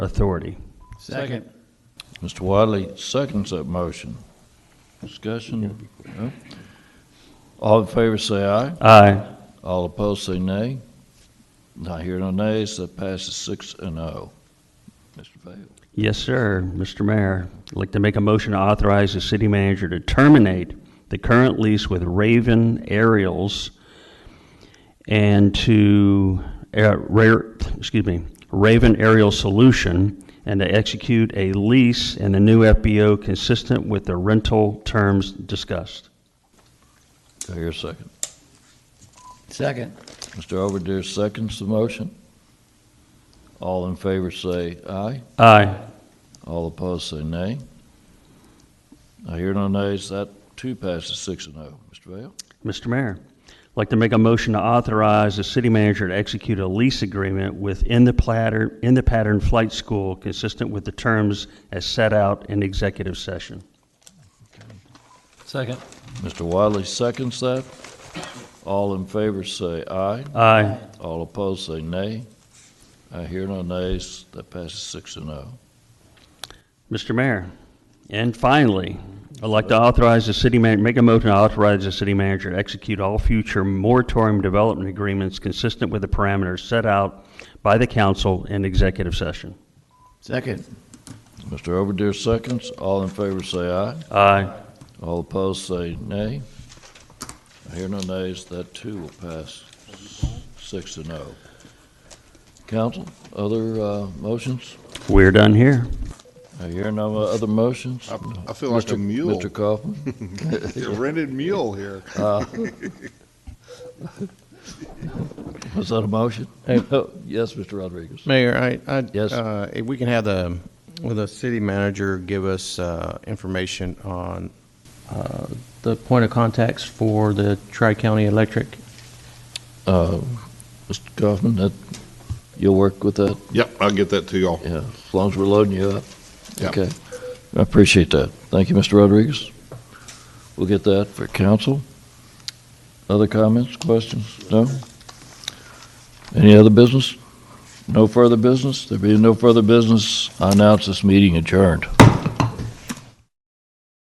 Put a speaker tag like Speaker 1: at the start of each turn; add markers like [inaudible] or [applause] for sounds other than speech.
Speaker 1: authority.
Speaker 2: Second.
Speaker 3: Mr. Wiley seconds that motion. Discussion? No? All in favor say aye.
Speaker 1: Aye.
Speaker 3: All opposed say nay. Not hearing no nays, that passes six and oh. Mr. Vale.
Speaker 1: Yes, sir. Mr. Mayor, I'd like to make a motion to authorize the city manager to terminate the current lease with Raven Aerials and to, uh, Ra- excuse me, Raven Aerial Solution, and to execute a lease and a new FBO consistent with the rental terms discussed.
Speaker 3: Do I hear a second?
Speaker 2: Second.
Speaker 3: Mr. Overdeer seconds the motion. All in favor say aye.
Speaker 1: Aye.
Speaker 3: All opposed say nay. Not hearing no nays, that too passes six and oh. Mr. Vale.
Speaker 1: Mr. Mayor, I'd like to make a motion to authorize the city manager to execute a lease agreement with In the Platter, In the Pattern Flight School consistent with the terms as set out in executive session.
Speaker 2: Second.
Speaker 3: Mr. Wiley seconds that. All in favor say aye.
Speaker 1: Aye.
Speaker 3: All opposed say nay. I hear no nays. That passes six and oh.
Speaker 1: Mr. Mayor, and finally, I'd like to authorize the city man, make a motion to authorize the city manager to execute all future moratorium development agreements consistent with the parameters set out by the council in executive session.
Speaker 2: Second.
Speaker 3: Mr. Overdeer seconds. All in favor say aye.
Speaker 1: Aye.
Speaker 3: All opposed say nay. I hear no nays. That too will pass six and oh. Council, other uh, motions?
Speaker 1: We're done here.
Speaker 3: I hear no other motions.
Speaker 4: I- I feel like a
Speaker 3: Mr.
Speaker 4: mule.
Speaker 3: Mr. Kaufman?
Speaker 4: A rented mule here.
Speaker 3: Was that a motion? [laughs] Yes, Mr. Rodriguez.
Speaker 5: Mayor, I, I.
Speaker 3: Yes.
Speaker 5: uh, If we can have the, will the city manager give us uh, information on uh, the point of contacts for the Tri-County Electric?
Speaker 3: Uh, Mr. Kaufman, that, you'll work with that?
Speaker 4: Yep, I'll get that to y'all.
Speaker 3: Yeah, as long as we're loading you up.
Speaker 4: Yeah.
Speaker 3: Okay. I appreciate that. Thank you, Mr. Rodriguez. We'll get that for council. Other comments, questions? No? Any other business? No further business? There being no further business, I announce this meeting adjourned.